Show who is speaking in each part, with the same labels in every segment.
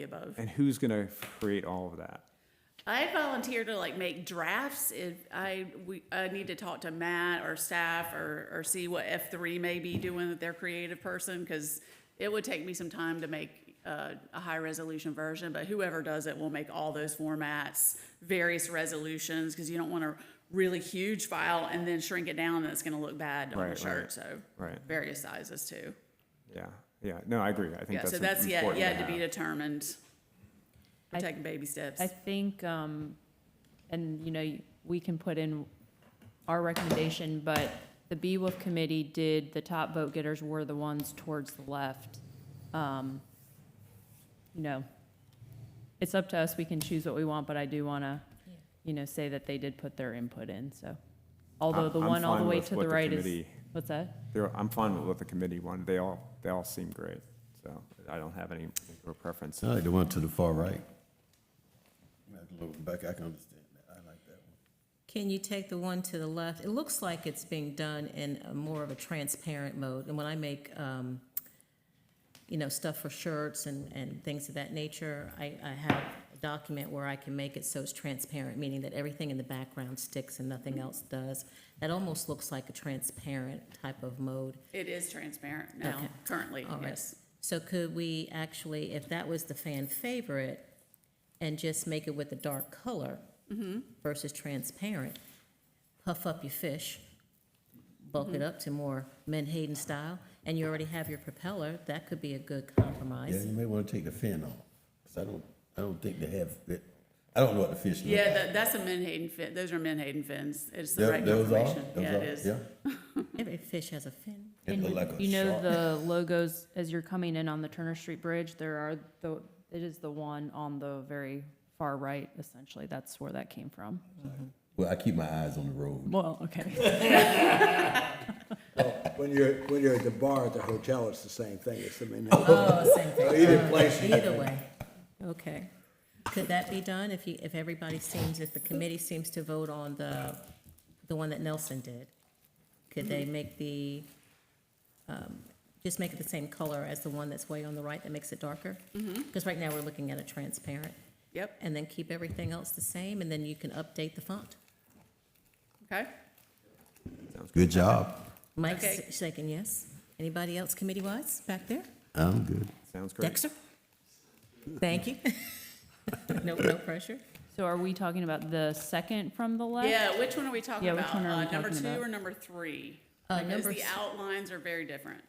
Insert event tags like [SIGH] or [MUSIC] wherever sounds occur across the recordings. Speaker 1: the above.
Speaker 2: And who's going to create all of that?
Speaker 1: I volunteer to like make drafts. If I we I need to talk to Matt or staff or or see what F three may be doing with their creative person because it would take me some time to make uh, a high resolution version. But whoever does it will make all those formats, various resolutions because you don't want a really huge file and then shrink it down and it's going to look bad on
Speaker 2: Right,
Speaker 1: the
Speaker 2: right,
Speaker 1: shirt. So
Speaker 2: right.
Speaker 1: various sizes too.
Speaker 2: Yeah, yeah. No, I agree. I think
Speaker 1: Yeah.
Speaker 2: that's
Speaker 1: so that's yet
Speaker 2: important
Speaker 1: yet to
Speaker 2: have.
Speaker 1: be determined. We're
Speaker 3: I-
Speaker 1: taking baby steps.
Speaker 3: I think, um, and you know, we can put in our recommendation, but the BWOF committee did, the top vote getters were the ones towards the left. Um, You know, it's up to us, we can choose what we want, but I do want to, you know, say that they did put their input in, so. Although
Speaker 2: I'm-
Speaker 3: the
Speaker 2: I'm
Speaker 3: one all the
Speaker 2: fine
Speaker 3: way
Speaker 2: with
Speaker 3: to
Speaker 2: what
Speaker 3: the right is,
Speaker 2: committee-
Speaker 3: what's that?
Speaker 2: they're- I'm fine with what the committee wanted. They all, they all seem great. So I don't have any particular preference.
Speaker 4: I like the one to the far right. I can look back, I can understand that, I like that one.
Speaker 5: Can you take the one to the left? It looks like it's being done in a more of a transparent mode. And when I make, um, you know, stuff for shirts and, and things of that nature, I, I have a document where I can make it so it's transparent, meaning that everything in the background sticks and nothing else does. That almost looks like a transparent type of mode.
Speaker 1: It is transparent now,
Speaker 5: Okay.
Speaker 1: currently,
Speaker 5: All right.
Speaker 1: yes.
Speaker 5: So could we actually, if that was the fan favorite, and just make it with a dark color versus transparent, puff up your fish, bulk it up to more Menhaden style, and you already have your propeller, that could be a good
Speaker 4: Yeah,
Speaker 5: compromise.
Speaker 4: you may wanna take the fin off, cause I don't, I don't think they have, it. I don't know what the fish look like.
Speaker 1: Yeah, that, that's a Menhaden fin, those are Menhaden fins, it's the
Speaker 4: Tho-
Speaker 1: right
Speaker 4: those are-
Speaker 1: confirmation,
Speaker 4: those
Speaker 1: yeah,
Speaker 4: are-
Speaker 1: it is.
Speaker 4: Yeah,
Speaker 5: Every fish has a fin.
Speaker 4: it
Speaker 3: And
Speaker 4: look like a
Speaker 3: You know,
Speaker 4: shark.
Speaker 3: the logos, as you're coming in on the Turner Street Bridge, there are, the. it is the one on the very far right, essentially. That's where that came from.
Speaker 4: Well, I keep my eyes on the road.
Speaker 3: Well, okay.
Speaker 6: When you're, when you're at the bar at the hotel, it's the same thing, it's the main.
Speaker 5: Oh, same thing.
Speaker 6: Either place, you
Speaker 5: Either way, okay. Could that be done if you, if everybody seems, if the committee seems to vote on the, the one that Nelson did? Could they make the, um, just make it the same color as the one that's way on the right that makes it darker? Because right now we're looking at a transparent,
Speaker 1: Yep,
Speaker 5: and then keep everything else the same, and then you can update the font.
Speaker 1: okay,
Speaker 4: Good job.
Speaker 5: Mike's
Speaker 1: Okay.
Speaker 5: shaking yes. Anybody else committee-wise back there?
Speaker 4: I'm good.
Speaker 2: Sounds great.
Speaker 5: Dexter? Thank you. [LAUGHS] No, no pressure.
Speaker 3: So are we talking about the second from the left?
Speaker 1: yeah, which one are we talking
Speaker 3: Yeah, which
Speaker 1: about?
Speaker 3: one are we
Speaker 1: Uh, Number
Speaker 3: talking
Speaker 1: two
Speaker 3: about?
Speaker 1: or number three?
Speaker 5: Uh,
Speaker 1: Because
Speaker 5: number
Speaker 1: the
Speaker 5: s-
Speaker 1: outlines are very different.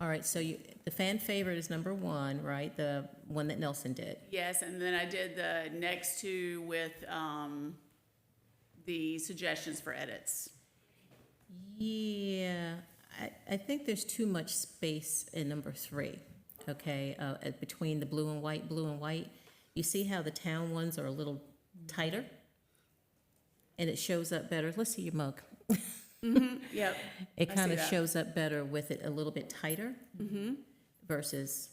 Speaker 5: All right, so you, the fan favorite is number one, right? The one that Nelson did.
Speaker 1: Yes, and then I did the next two with, um, the suggestions for edits.
Speaker 5: Yeah, I, I think there's too much space in number three, okay? Uh, uh, between the blue and white, blue and white. You see how the town ones are a little tighter? And it shows up better. Let's see your mug.
Speaker 1: Yep, I
Speaker 5: It
Speaker 1: see
Speaker 5: kind
Speaker 1: that.
Speaker 5: of
Speaker 1: Mm-hmm.
Speaker 5: shows up better with it a little bit tighter versus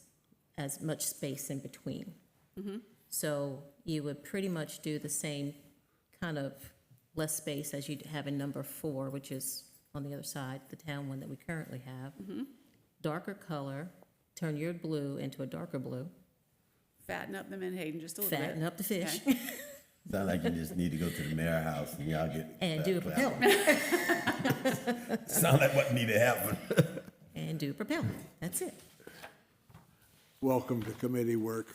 Speaker 5: as much space in between.
Speaker 1: Mm-hmm.
Speaker 5: So you would pretty much do the same kind of less space as you have in number four, which is on the other side, the town one that we currently have.
Speaker 1: Mm-hmm.
Speaker 5: Darker color, turn your blue into a darker blue,
Speaker 1: fatten up the Menhaden just a little bit.
Speaker 5: fatten up the fish,
Speaker 4: Sound like you just need to go to the mayor house and y'all get.
Speaker 5: and do a propeller.
Speaker 4: Sound like what need to happen.
Speaker 5: And do a propeller. That's it.
Speaker 6: Welcome to committee work.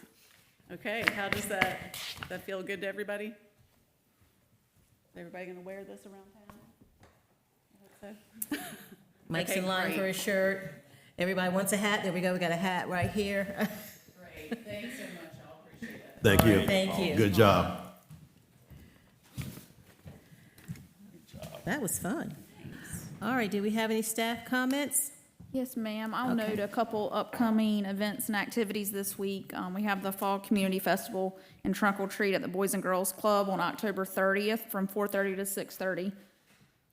Speaker 1: Okay, how does that, that feel good to everybody? Is everybody gonna wear this around town? I hope so.
Speaker 5: Mike's
Speaker 1: Okay,
Speaker 5: in line for
Speaker 1: great.
Speaker 5: his shirt. Everybody wants a hat. There we go. We got a hat right here. [LAUGHS]
Speaker 1: Great, thanks so much, I appreciate it.
Speaker 4: Thank you.
Speaker 5: Thank you.
Speaker 4: Good job.
Speaker 5: That was fun. All right, do we have any staff comments?
Speaker 7: Yes, ma'am. I'll
Speaker 5: Okay.
Speaker 7: note a couple upcoming events and activities this week. Um, we have the Fall Community Festival and Trunk or Treat at the Boys and Girls Club on October thirtieth from four thirty to six thirty.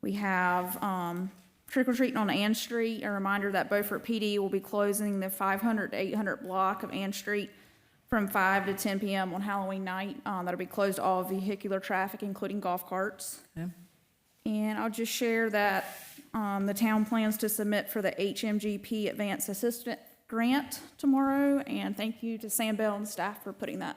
Speaker 7: We have, um, trick or treating on Ann Street. A reminder that Beaufort PD will be closing the five hundred to eight hundred block of Ann Street from five to ten PM on Halloween night. Uh, that'll be closed to all vehicular traffic, including golf carts. And I'll just share that um, the town plans to submit for the HMGP Advanced Assistant grant tomorrow, and thank you to Sam Bell and staff for putting that